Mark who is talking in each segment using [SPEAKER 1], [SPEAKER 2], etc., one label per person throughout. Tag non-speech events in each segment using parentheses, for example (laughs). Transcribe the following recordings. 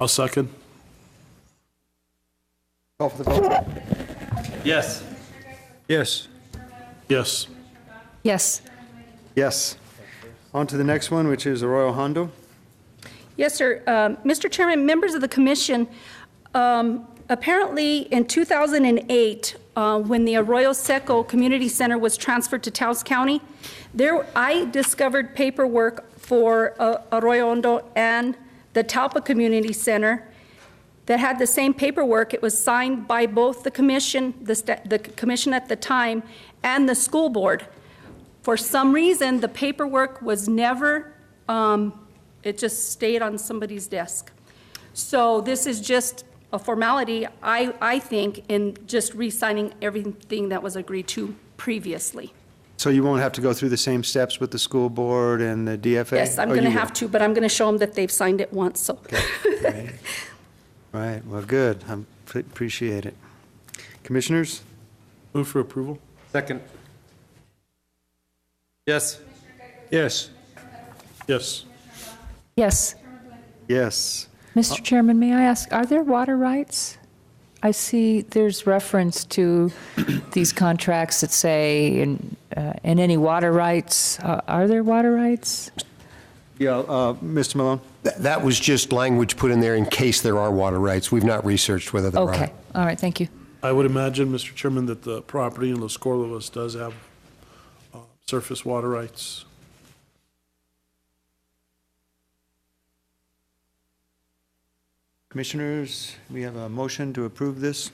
[SPEAKER 1] I'll second.
[SPEAKER 2] Call for the vote.
[SPEAKER 3] Yes.
[SPEAKER 4] Yes.
[SPEAKER 1] Yes.
[SPEAKER 5] Yes.
[SPEAKER 2] Yes. On to the next one, which is the Royal Hondo.
[SPEAKER 5] Yes, sir. Um, Mr. Chairman, members of the commission, um, apparently in 2008, uh, when the Arroyo Seco Community Center was transferred to Taos County, there, I discovered paperwork for uh, Arroyo Hondo and the Talpa Community Center that had the same paperwork. It was signed by both the commission, the sta- the commission at the time, and the school board. For some reason, the paperwork was never, um, it just stayed on somebody's desk. So this is just a formality, I, I think, in just re-signing everything that was agreed to previously.
[SPEAKER 2] So you won't have to go through the same steps with the school board and the DFA?
[SPEAKER 5] Yes, I'm
[SPEAKER 2] Oh, you
[SPEAKER 5] going to
[SPEAKER 2] will.
[SPEAKER 5] have to, but I'm going to show them that they've signed it once, so.
[SPEAKER 2] Right, well, good. I appreciate it. Commissioners?
[SPEAKER 1] Move for approval?
[SPEAKER 3] Second. Yes.
[SPEAKER 4] Yes.
[SPEAKER 1] Yes.
[SPEAKER 6] Yes.
[SPEAKER 2] Yes.
[SPEAKER 6] Mr. Chairman, may I ask, are there water rights? I see there's reference to (clears throat) these contracts that say, in uh, in any water rights, Uh, are there water rights?
[SPEAKER 2] Yeah. uh, Mr. Malone?
[SPEAKER 7] Th- That was just language put in there in case there are water rights. We've not researched whether there are.
[SPEAKER 6] Okay, all right, thank you.
[SPEAKER 1] I would imagine, Mr. Chairman, that the property in Los Corvos does have uh, surface water rights.
[SPEAKER 2] Commissioners, we have a motion to approve this.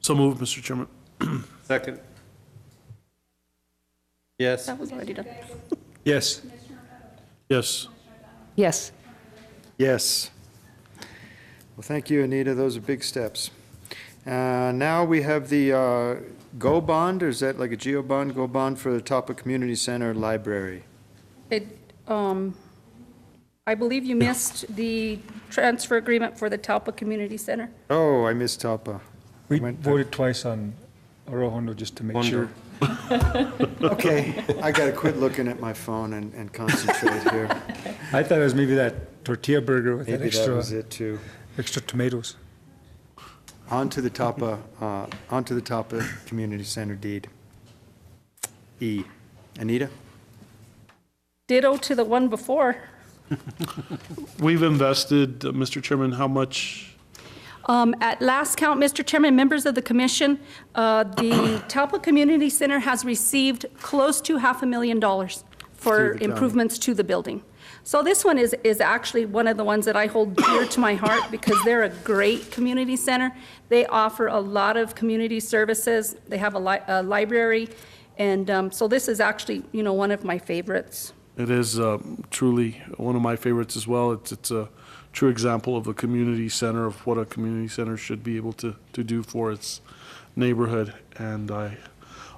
[SPEAKER 1] So move, Mr. Chairman.
[SPEAKER 3] Second.
[SPEAKER 5] (laughs)
[SPEAKER 3] Yes.
[SPEAKER 5] That was already done.
[SPEAKER 4] Yes.
[SPEAKER 1] Yes.
[SPEAKER 6] Yes.
[SPEAKER 2] Yes. Well, thank you, Anita. Those are big steps. Uh, Now we have the uh, GO bond, or is that like a GEO bond? GO bond for the Topa Community Center Library.
[SPEAKER 5] It, um, I believe you missed the transfer agreement for the Talpa Community Center.
[SPEAKER 2] Oh, I missed Topa.
[SPEAKER 4] We
[SPEAKER 2] Went-
[SPEAKER 4] voted twice on Arrohondo just to make sure.
[SPEAKER 2] Okay, I gotta quit looking at my phone and and concentrate here.
[SPEAKER 4] I thought it was maybe that tortilla burger with that
[SPEAKER 2] Maybe that
[SPEAKER 4] extra,
[SPEAKER 2] was it, too.
[SPEAKER 4] extra tomatoes.
[SPEAKER 2] Onto the Topa, uh, onto the Topa Community Center deed. E. Anita?
[SPEAKER 5] Ditto to the one before.
[SPEAKER 1] We've invested, uh, Mr. Chairman, how much?
[SPEAKER 5] Um, At last count, Mr. Chairman, members of the commission, uh, the
[SPEAKER 2] (clears throat)
[SPEAKER 5] Talpa Community Center has received close to half a million dollars for
[SPEAKER 2] Through the county.
[SPEAKER 5] improvements to the building. So this one is, is actually one of the ones that I hold dear to my heart because they're a great community center. They offer a lot of community services. They have a li- a library. And um, so this is actually, you know, one of my favorites.
[SPEAKER 1] It is uh, truly one of my favorites as well. It's, it's a true example of a community center, of what a community center should be able to, to do for its neighborhood. And I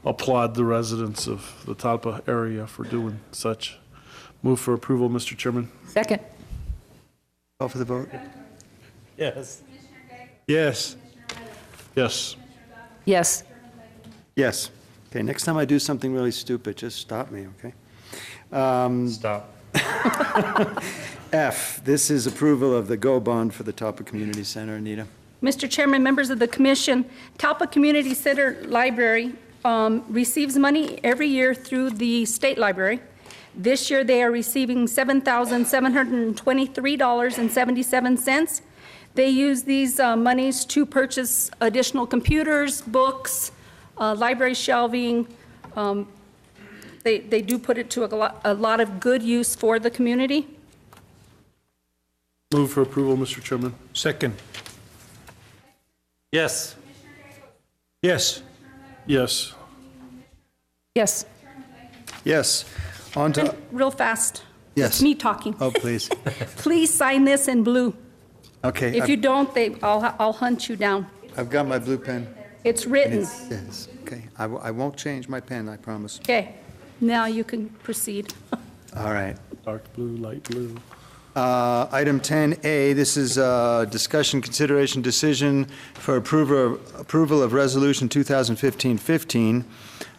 [SPEAKER 1] applaud the residents of the Talpa area for doing such. Move for approval, Mr. Chairman.
[SPEAKER 6] Second.
[SPEAKER 2] Call for the vote?
[SPEAKER 3] Yes.
[SPEAKER 4] Yes.
[SPEAKER 1] Yes.
[SPEAKER 6] Yes.
[SPEAKER 2] Yes. Okay, next time I do something really stupid, just stop me, okay? Um,
[SPEAKER 3] Stop.
[SPEAKER 2] F, this is approval of the GO bond for the Topa Community Center. Anita?
[SPEAKER 5] Mr. Chairman, members of the commission, Talpa Community Center Library um, receives money every year through the state library. This year, they are receiving $7,723.77. They use these uh, monies to purchase additional computers, books, uh, library shelving. Um, They they do put it to a lot- a lot of good use for the community.
[SPEAKER 1] Move for approval, Mr. Chairman.
[SPEAKER 4] Second.
[SPEAKER 3] Yes.
[SPEAKER 4] Yes.
[SPEAKER 1] Yes.
[SPEAKER 6] Yes.
[SPEAKER 2] Yes. On to,
[SPEAKER 5] Real fast.
[SPEAKER 2] Yes.
[SPEAKER 5] Me talking.
[SPEAKER 2] oh, please.
[SPEAKER 5] (laughs) Please sign this in blue.
[SPEAKER 2] Okay,
[SPEAKER 5] If you
[SPEAKER 2] I've-
[SPEAKER 5] don't, they, I'll, I'll hunt you down.
[SPEAKER 2] I've got my blue pen.
[SPEAKER 5] It's written.
[SPEAKER 2] Yes, okay. I w- I won't change my pen, I promise.
[SPEAKER 5] Okay, now you can proceed.
[SPEAKER 2] All right.
[SPEAKER 1] Dark blue, light blue.
[SPEAKER 2] Uh, Item 10A, this is uh, discussion, consideration, decision for approver- approval of Resolution 2015-15,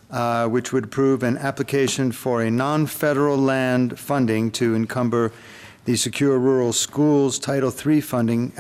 [SPEAKER 2] uh, which would approve an application for a non-federal land funding to encumber the Secure Rural Schools Title III funding